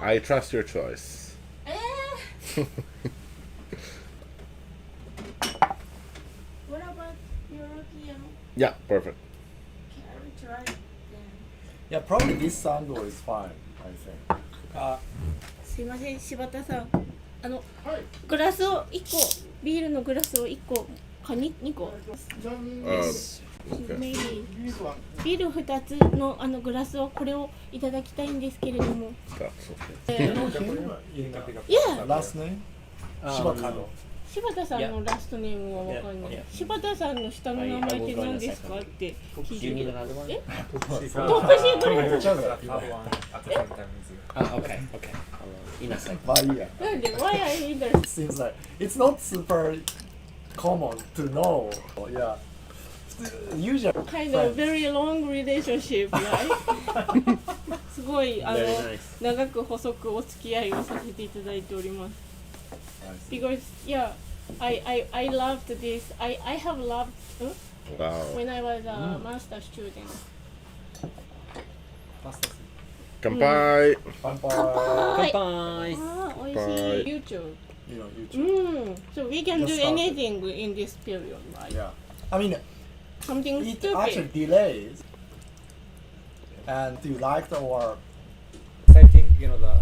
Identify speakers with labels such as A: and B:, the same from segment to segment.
A: I trust your choice.
B: えー What about European
A: Yeah, perfect.
B: character?
C: Yeah, probably this sandal is fine, I think.
D: あ
E: すいません柴田さんあの
C: Hi.
E: グラスを1個ビールのグラスを1個カニ2個
A: Uh,
E: Maybe
A: okay.
E: ビール2つのあのグラスをこれをいただきたいんですけれども
A: Um, That's okay.
D: 家に買ってか
E: Yeah
C: Last name? Uh, Shibakano.
E: 柴田さんのラストネームはわかんない
F: Yeah.
E: 柴田さんの下の名前って何ですかって聞
F: You
E: い
F: need
E: て
F: another one?
E: トップ シートレ
C: Each other.
F: Oh, okay, okay. I'll, uh, in a sec.
C: But yeah,
E: なんで Why are you there?
C: seems like it's not super common to know. Yeah. Usually,
E: kind of very long relationship, right? すごいあの
F: Very nice.
E: 長く細くお付き合いをさせていただいております。Because yeah, I I I loved this. I I have loved、ん
A: Wow.
D: Oh.
E: when I was a
D: Mm.
E: master student.
A: Kanpai.
C: Vampire,
E: はい。
F: Bye.
E: あ Ah, あ美味しい。YouTube.
C: you know, YouTube.
E: うん。So we can do
C: Just started.
E: anything in this period, right?
C: Yeah. I mean,
E: Something
C: it actually
E: stupid.
C: delays. And do you like the or
D: I think, you know, the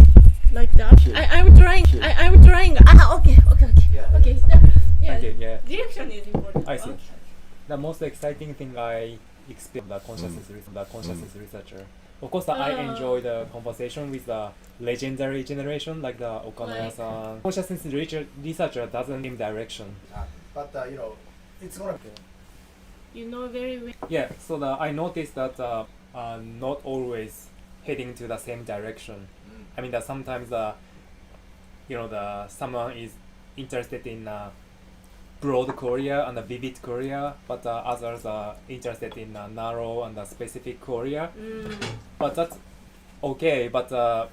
E: Like that. I I'm trying. I I'm trying. あ okay okay okay.
D: Yeah.
E: Okay. stop.
D: okay,
E: Yeah.
D: yeah.
E: Direction is important.
D: I see.
E: Okay.
D: The most exciting thing I experienced the consciousness, research, the consciousness researcher. Of course, I
E: Ah.
D: enjoy the conversation with the legendary generation like the Okamura-san. Consciousness researcher, researcher doesn't give direction.
C: But uh, you know, it's gonna be.
E: You know very well.
D: Yeah, so the, I noticed that uh, uh, not always heading to the same direction. I mean that sometimes uh, you know the someone is interested in uh, broad Korea and a vivid Korea, but uh, others are interested in uh, narrow and uh, specific Korea.
E: うん。
D: But that's okay. But uh,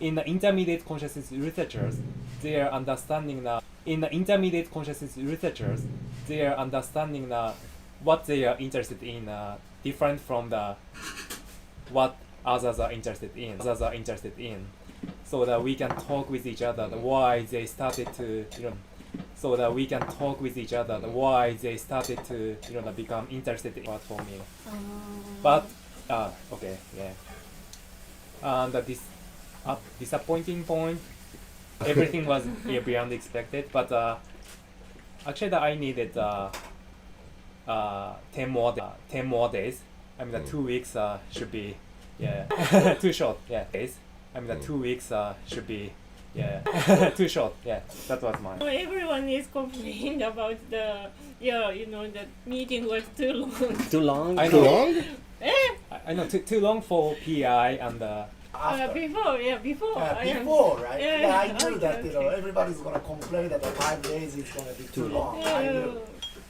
D: in the intermediate consciousness researchers, their understanding the in the intermediate consciousness researchers, their understanding the what they are interested in uh, different from the what others are interested in. Others are interested in, so that we can talk with each other the why they started to you know. So that we can talk with each other the why they started to you know become interested in platform. You know. But uh, okay, yeah. And the dis- uh, disappointing point, everything was yeah, beyond expected. But uh, actually, that I needed uh, uh, ten more da- ten more days. I mean, the two weeks uh, should be yeah too short. Yeah, days. I mean, the two weeks uh, should be yeah too short. Yeah, that was mine.
E: Well, everyone is complaining about the yeah, you know, the meeting was too long.
F: Too long?
D: I
A: Too
D: know,
A: long?
D: I I know, too, too long for PI and uh,
E: Uh,
C: After.
E: before, yeah, before.
C: Yeah,
E: I am-
C: before, right?
E: Yeah,
C: Yeah, I
E: yeah,
C: knew
E: okay,
C: that you know
E: okay.
C: everybody's gonna complain that the five days is gonna be too long. I
E: Yeah.
C: knew.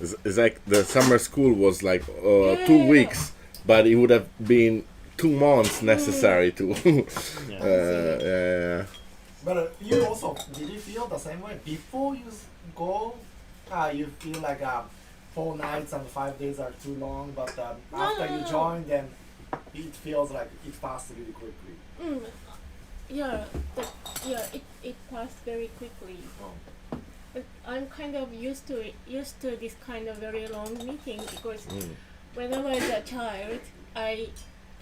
A: It's, it's like the summer school was like uh,
E: Yeah.
A: two weeks, but it would have been two months necessary to.
F: Yeah.
A: uh, yeah, yeah, yeah.
C: But uh, you also did you feel the same way before you s- go? Uh, you feel like um, four nights and five days are too long, but um,
E: No,
C: after
E: no,
C: you
E: no.
C: join, then it feels like it passed really quickly.
E: Mm, yeah, the, yeah, it, it passed very quickly.
C: Oh.
E: But I'm kind of used to it, used to this kind of very long meeting because
A: Mm.
E: when I was a child, I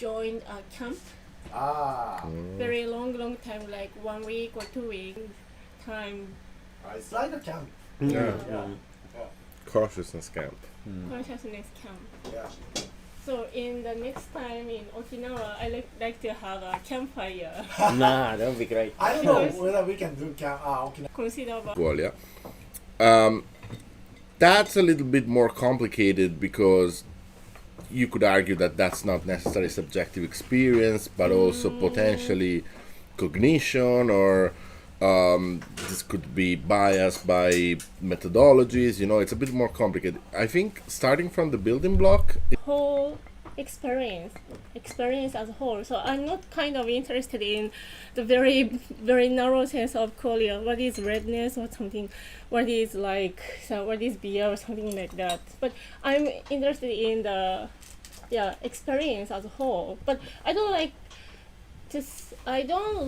E: joined a camp
C: Ah,
E: very long, long time, like one week or two weeks time
C: it's like a camp.
A: Yeah.
C: Yeah,
A: Cautiousness camp.
C: Mm.
E: consciousness camp.
C: yeah.
E: So in the next time in Okinawa, I like like to have a campfire.
F: nah, Ah, that would be great.
C: I don't know whether we can do camp. Ah, okay.
E: Consider about
A: Well, yeah. Um, that's a little bit more complicated because you could argue that that's not necessarily subjective experience, but also potentially cognition or um, this could be biased by methodologies. You know, it's a bit more complicated. I think starting from the building block,
E: whole experience, experience as a whole. So I'm not kind of interested in the very very narrow sense of Korea. What is redness or something? What is like so? What is beer or something like that? But I'm interested in the yeah experience as a whole. But I don't like just I don't